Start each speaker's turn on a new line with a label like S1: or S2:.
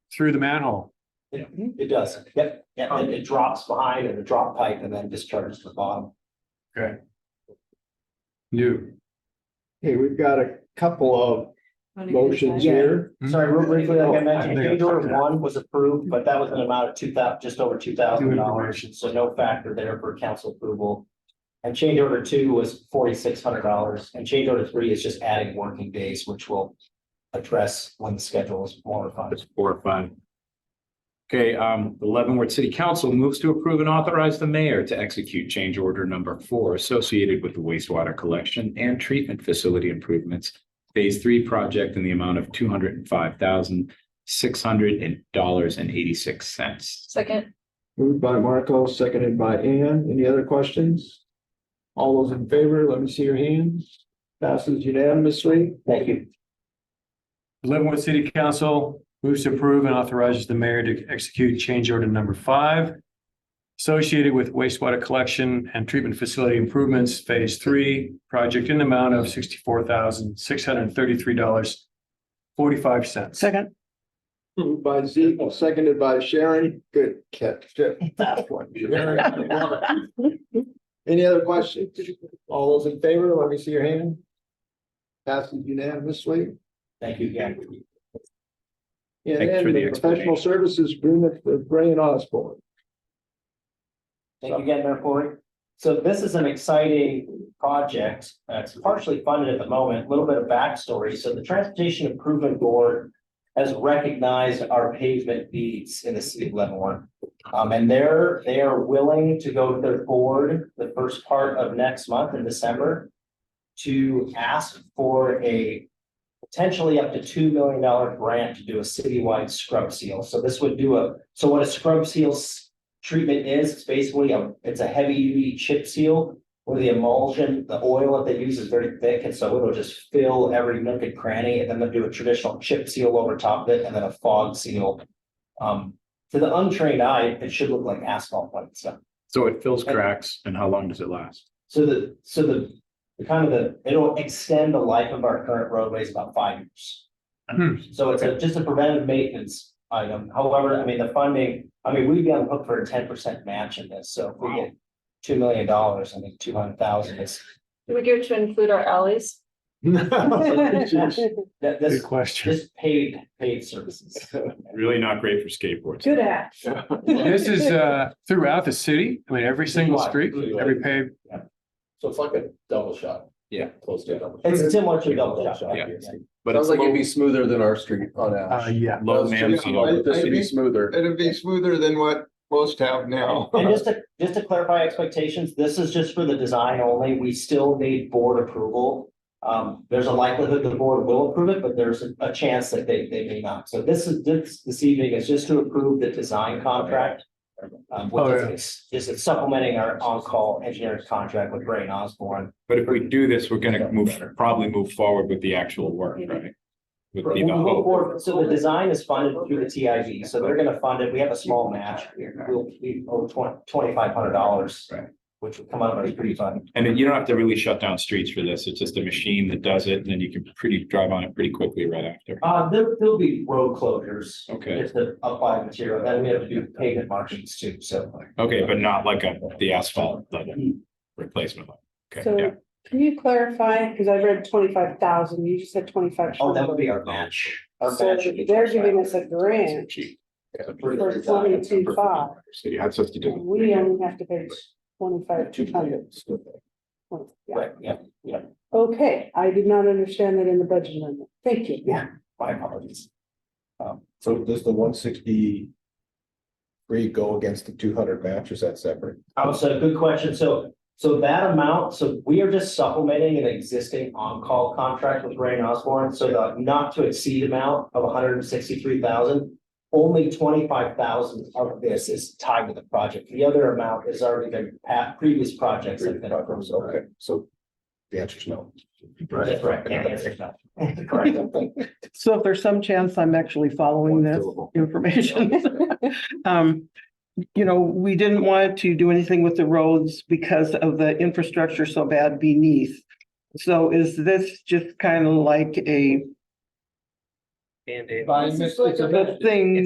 S1: through the manhole.
S2: It does, yep, yeah, and it drops behind in the drop pipe and then discharges to the bottom.
S1: New.
S3: Okay, we've got a couple of motions
S2: Yeah.
S3: here.
S4: Hmm.
S2: Sorry, real briefly,
S4: Oh,
S2: like I mentioned,
S1: I think I-
S2: Gator one was approved, but that was an amount of two thousand, just over two thousand dollars,
S1: information.
S2: so no factor there for council approval. And change order two was forty-six hundred dollars, and change order three is just adding working days, which will address when the schedule is modified.
S4: That's four or five. Okay, um, the Leavenworth City Council moves to approve and authorize the mayor to execute change order number four associated with the wastewater collection and treatment facility improvements. Phase three project in the amount of two hundred and five thousand, six hundred and dollars and eighty-six cents.
S5: Second,
S3: Moved by Marco, seconded by Ann. Any other questions? All those in favor, let me see your hands. Passes unanimously.
S2: Thank you.
S1: Leavenworth City Council moves to approve and authorizes the mayor to execute change order number five associated with wastewater collection and treatment facility improvements, phase three, project in the amount of sixty-four thousand, six hundred and thirty-three dollars, forty-five cents.
S6: Second,
S3: Moved by Zeke, seconded by Sharon. Good catch. That one. Sharon. Any other questions? All those in favor, let me see your hand. Passes unanimously.
S2: Thank you again.
S3: And
S4: Thanks
S3: then
S4: for the
S3: the professional services agreement for Gray and Osborne.
S2: Thank you again, Mayor Corey. So this is an exciting project. Uh, It's partially funded at the moment, a little bit of backstory. So the Transportation Improvement Board has recognized our pavement needs in the city of Leavenworth. Um, and they're, they are willing to go to their board the first part of next month in December to ask for a potentially up to two million dollar grant to do a citywide scrub seal. So this would do a, so what a scrub seal s- treatment is, it's basically a, it's a heavy duty chip seal. Where the emulsion, the oil that they use is very thick, and so it'll just fill every nook and cranny, and then they'll do a traditional chip seal over top of it, and then a fog seal. Um, to the untrained eye, it should look like asphalt white stuff.
S4: So it fills cracks and how long does it last?
S2: So the, so the, the kind of the, it'll extend the life of our current roadways about five years.
S1: Hmm.
S2: So it's a, just a preventive maintenance item. However, I mean, the funding, I mean, we'd be on the hook for a ten percent match in this, so if we get. Two million dollars, I think two hundred thousand is,
S5: do we go to include our alleys?
S3: Good
S2: that,
S1: Good
S2: this,
S1: question.
S2: this paid, paid services.
S4: Really not great for skateboards.
S6: at.
S1: This is, uh, throughout the city, I mean, every single street, every paved
S7: So it's like a double shot.
S4: Yeah.
S7: Close to a double. shot.
S2: It's similar to a double shot.
S4: Yeah. But
S7: Sounds
S4: it's
S7: like it'd
S4: low,
S7: be smoother than our street on
S1: Uh,
S7: Ash.
S1: yeah,
S4: low
S7: That's
S4: man.
S7: just- This would be smoother.
S3: It'd be smoother than what most have now.
S2: And just to, just to clarify expectations, this is just for the design only. We still need board approval. Um, there's a likelihood the board will approve it, but there's a- a chance that they, they may not. So this is, this, this evening is just to approve the design contract. Um,
S1: Oh,
S2: which
S1: yeah.
S2: is, is supplementing our on-call engineering contract with Ray and Osborne.
S4: But if we do this, we're gonna move, probably move forward with the actual work, right? Would be the
S2: We'll move
S4: hope.
S2: forward. So the design is funded through the TIV, so they're gonna fund it. We have a small match. We'll, we owe twenty, twenty-five hundred dollars.
S4: Right.
S2: Which would come out of our pretty fund.
S4: And then you don't have to really shut down streets for this. It's just a machine that does it and then you can pretty, drive on it pretty quickly right after.
S2: Uh, there, there'll be road closures.
S4: Okay,
S2: If the applied material, then we have to do pavement margins too, so.
S4: okay, but not like a, the asphalt level replacement. level. Okay, yeah.
S6: So can you clarify, because I read twenty-five thousand, you just said twenty-five.
S2: Oh, that would be our match. Our
S6: So
S2: match would be
S6: they're giving us a grant
S2: for the
S6: for
S2: design.
S6: twenty-two five,
S4: So you have to
S6: and
S4: do.
S6: we only have to pay twenty-five two hundred.
S2: Right, yeah,
S6: Okay, I did not understand that in the budget amendment. Thank you.
S2: Yeah. my apologies.
S7: So does the one sixty three go against the two hundred match? Is that separate?
S2: Oh, so good question. So, so that amount, so we are just supplementing an existing on-call contract with Ray and Osborne. So the not to exceed amount of hundred and sixty-three thousand. Only twenty-five thousand of this is tied to the project. The other amount has already been, pa- previous projects have been approved.
S7: Okay, so the answer is no.
S2: That's right. Yeah, that's right. Correct.
S8: So if there's some chance I'm actually following this information. Um, you know, we didn't want to do anything with the roads because of the infrastructure so bad beneath. So is this just kind of like a
S2: Band-Aid.
S3: By mis- it's a
S8: a thing